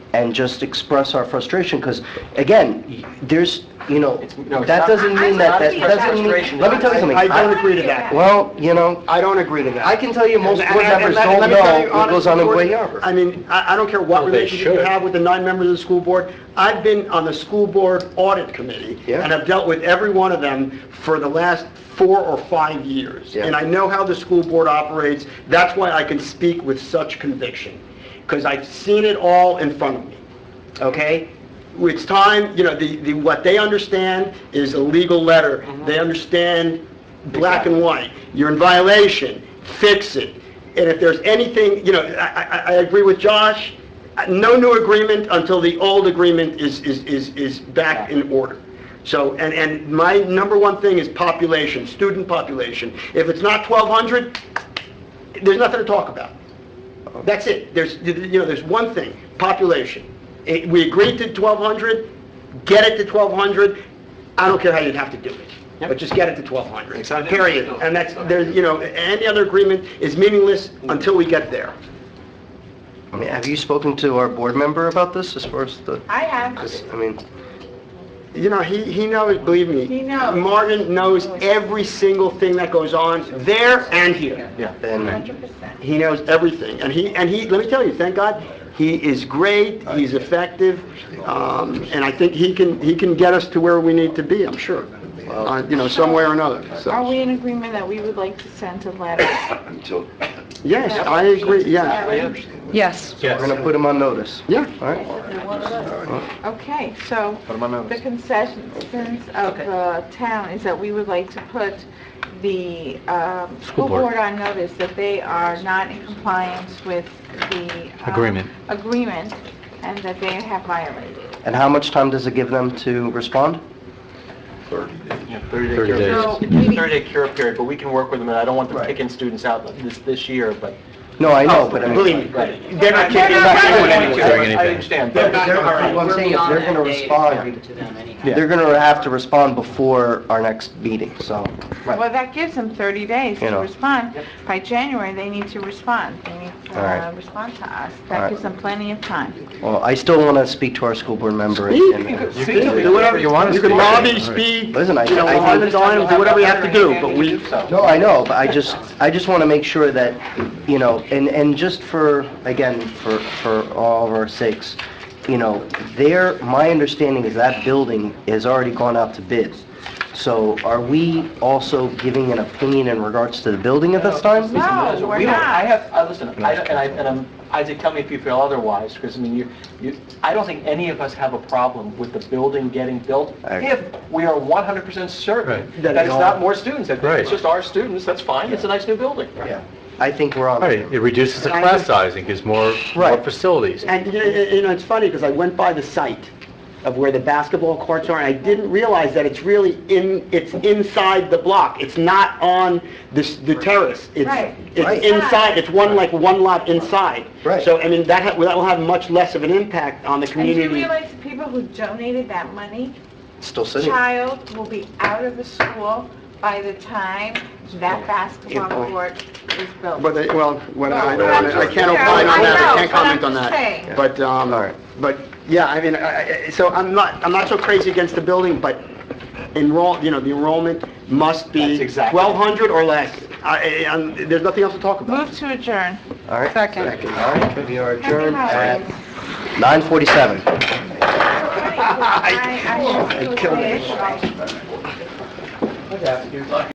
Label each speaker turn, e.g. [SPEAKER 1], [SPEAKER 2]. [SPEAKER 1] and just express our frustration, because, again, y- there's, you know,
[SPEAKER 2] It's- no, it's
[SPEAKER 1] that
[SPEAKER 2] not-
[SPEAKER 1] doesn't mean
[SPEAKER 3] I'm
[SPEAKER 1] that,
[SPEAKER 3] not
[SPEAKER 1] that
[SPEAKER 3] being
[SPEAKER 1] doesn't mean,
[SPEAKER 2] frustration.
[SPEAKER 1] let me tell you something.
[SPEAKER 4] I
[SPEAKER 1] I-
[SPEAKER 4] don't agree to that.
[SPEAKER 1] Well, you know,
[SPEAKER 4] I don't agree to that.
[SPEAKER 1] I can tell you most
[SPEAKER 4] And-
[SPEAKER 1] board
[SPEAKER 4] and-
[SPEAKER 1] members
[SPEAKER 4] and let-
[SPEAKER 1] don't
[SPEAKER 4] let me tell you
[SPEAKER 1] know what goes on in
[SPEAKER 4] honestly,
[SPEAKER 1] Boy Harbor.
[SPEAKER 4] I mean, I, I don't care what
[SPEAKER 2] Well, they
[SPEAKER 4] relationship you
[SPEAKER 2] should.
[SPEAKER 4] have with the nine members of the school board. I've been on the school board audit committee,
[SPEAKER 1] Yeah.
[SPEAKER 4] and I've dealt with every one of them for the last four or five years.
[SPEAKER 1] Yeah.
[SPEAKER 4] And I know how the school board operates. That's why I can speak with such conviction, because I've seen it all in front of me, okay? It's time, you know, the, the, what they understand is a legal letter. They understand black and white. You're in violation, fix it. And if there's anything, you know, I, I, I agree with Josh, no new agreement until the old agreement is, is, is, is back in order. So, and, and my number one thing is population, student population. If it's not 1,200, there's nothing to talk about. That's it. There's, you know, there's one thing, population. It- We agreed to 1,200, get it to 1,200. I don't care how you'd have to do it, but just get it to 1,200,
[SPEAKER 2] Exactly.
[SPEAKER 4] period. And that's, there's, you know, any other agreement is meaningless until we get there.
[SPEAKER 1] I mean, have you spoken to our board member about this, as far as the,
[SPEAKER 3] I have,
[SPEAKER 1] this- I mean,
[SPEAKER 4] You know, he, he knows, believe me.
[SPEAKER 3] He knows.
[SPEAKER 4] Martin knows every single thing that goes on there and here.
[SPEAKER 2] Yeah.
[SPEAKER 1] then,
[SPEAKER 3] hundred percent.
[SPEAKER 4] He knows everything, and he, and he, let me tell you, thank God, he is great, he's effective, um, and I think he can, he can get us to where we need to be, I'm sure, Uh, you know, some way or another,
[SPEAKER 3] Are
[SPEAKER 4] so.
[SPEAKER 3] we in agreement that we would like to send a letter?
[SPEAKER 5] until,
[SPEAKER 4] Yes, I agree, yeah,
[SPEAKER 3] Yeah.
[SPEAKER 6] Yes.
[SPEAKER 1] we're going to put him on notice,
[SPEAKER 4] yeah.
[SPEAKER 1] all right?
[SPEAKER 3] Okay, so the concessions of the town is that we would like to put the um, school board on notice that they are not in compliance with the... um,
[SPEAKER 7] Agreement.
[SPEAKER 3] Agreement, and that they have violated.
[SPEAKER 1] And how much time does it give them to respond?
[SPEAKER 5] 30 days.
[SPEAKER 2] Thirty-day
[SPEAKER 7] days.
[SPEAKER 2] cure
[SPEAKER 3] So,
[SPEAKER 2] period.
[SPEAKER 3] maybe-
[SPEAKER 2] Thirty-day cure period, but we can work with them, and I don't want them kicking students out this, this year, but.
[SPEAKER 1] No, I know, but I mean...
[SPEAKER 4] Believe me,
[SPEAKER 2] Right.
[SPEAKER 4] they're not kicking
[SPEAKER 3] They're not
[SPEAKER 4] back
[SPEAKER 3] doing
[SPEAKER 4] anyone
[SPEAKER 7] anything.
[SPEAKER 4] anyway.
[SPEAKER 7] Doing
[SPEAKER 2] I understand,
[SPEAKER 1] They're
[SPEAKER 2] but
[SPEAKER 1] not- all right, what I'm saying is they're going to respond, they're going to have to respond before our next meeting, so.
[SPEAKER 3] Well, that gives them 30 days
[SPEAKER 1] You
[SPEAKER 3] to
[SPEAKER 1] know.
[SPEAKER 3] respond. By January, they need to respond. They need to
[SPEAKER 1] All right.
[SPEAKER 3] uh, respond to us.
[SPEAKER 1] All right.
[SPEAKER 3] That gives them plenty of time.
[SPEAKER 1] Well, I still want to speak to our school board member. and-
[SPEAKER 4] Speak.
[SPEAKER 1] and-
[SPEAKER 2] You can
[SPEAKER 4] Do whatever you want.
[SPEAKER 2] to
[SPEAKER 4] You can
[SPEAKER 2] do.
[SPEAKER 4] lobby, speak, you
[SPEAKER 1] Listen, I-
[SPEAKER 4] know,
[SPEAKER 1] I-
[SPEAKER 4] on the dime, do whatever you have to do, but we,
[SPEAKER 1] No, I know, but I just, I just want to make sure that, you know, and, and just for, again, for, for all of our sakes, you know, there, my understanding is that building has already gone out to bid. So are we also giving an opinion in regards to the building at this time?
[SPEAKER 3] No, we're
[SPEAKER 2] We don't- I
[SPEAKER 3] not.
[SPEAKER 2] have, I, listen, I, don't- and I, and I'm, Isaac, tell me if you feel otherwise, because I mean, you, you, I don't think any of us have a problem with the building getting built
[SPEAKER 1] I-
[SPEAKER 2] if we are one hundred percent certain
[SPEAKER 7] Right.
[SPEAKER 2] that it's not more students, that
[SPEAKER 7] Right.
[SPEAKER 2] it's just our students, that's fine, it's a nice new building.
[SPEAKER 1] Yeah, I think we're on.
[SPEAKER 7] Right, it reduces the class size and gives more, more
[SPEAKER 4] Right.
[SPEAKER 7] facilities.
[SPEAKER 4] And, you know, you know, it's funny, because I went by the site of where the basketball courts are, and I didn't realize that it's really in, it's inside the block. It's not on the, s- the terrace. It's-
[SPEAKER 3] Right.
[SPEAKER 1] Right.
[SPEAKER 4] It's inside, it's one, like, one lot inside.
[SPEAKER 1] Right.
[SPEAKER 4] So, I mean, that, ha- that will have much less of an impact on the
[SPEAKER 3] And do you
[SPEAKER 4] community.
[SPEAKER 3] realize the people who donated that money,
[SPEAKER 1] Still sitting.
[SPEAKER 3] child will be out of the school by the time that basketball court is built?
[SPEAKER 4] But, they- well, when I, I I
[SPEAKER 3] Yeah,
[SPEAKER 4] can't opine on
[SPEAKER 3] I
[SPEAKER 4] that, I
[SPEAKER 3] know, but I'm
[SPEAKER 4] can't comment on
[SPEAKER 3] just saying.
[SPEAKER 4] that. But, um,
[SPEAKER 1] All right.
[SPEAKER 4] but, yeah, I mean, I- I- so I'm not, I'm not so crazy against the building, but enroll, you know, the enrollment must be
[SPEAKER 2] That's exactly-
[SPEAKER 4] 1,200 or less. I, I- I'm- there's nothing else to talk about.
[SPEAKER 3] Move to adjourn.
[SPEAKER 1] All right.
[SPEAKER 6] Second.
[SPEAKER 1] All right, we are adjourned at
[SPEAKER 3] holidays.
[SPEAKER 1] 9:47.
[SPEAKER 3] I I have to do a day off.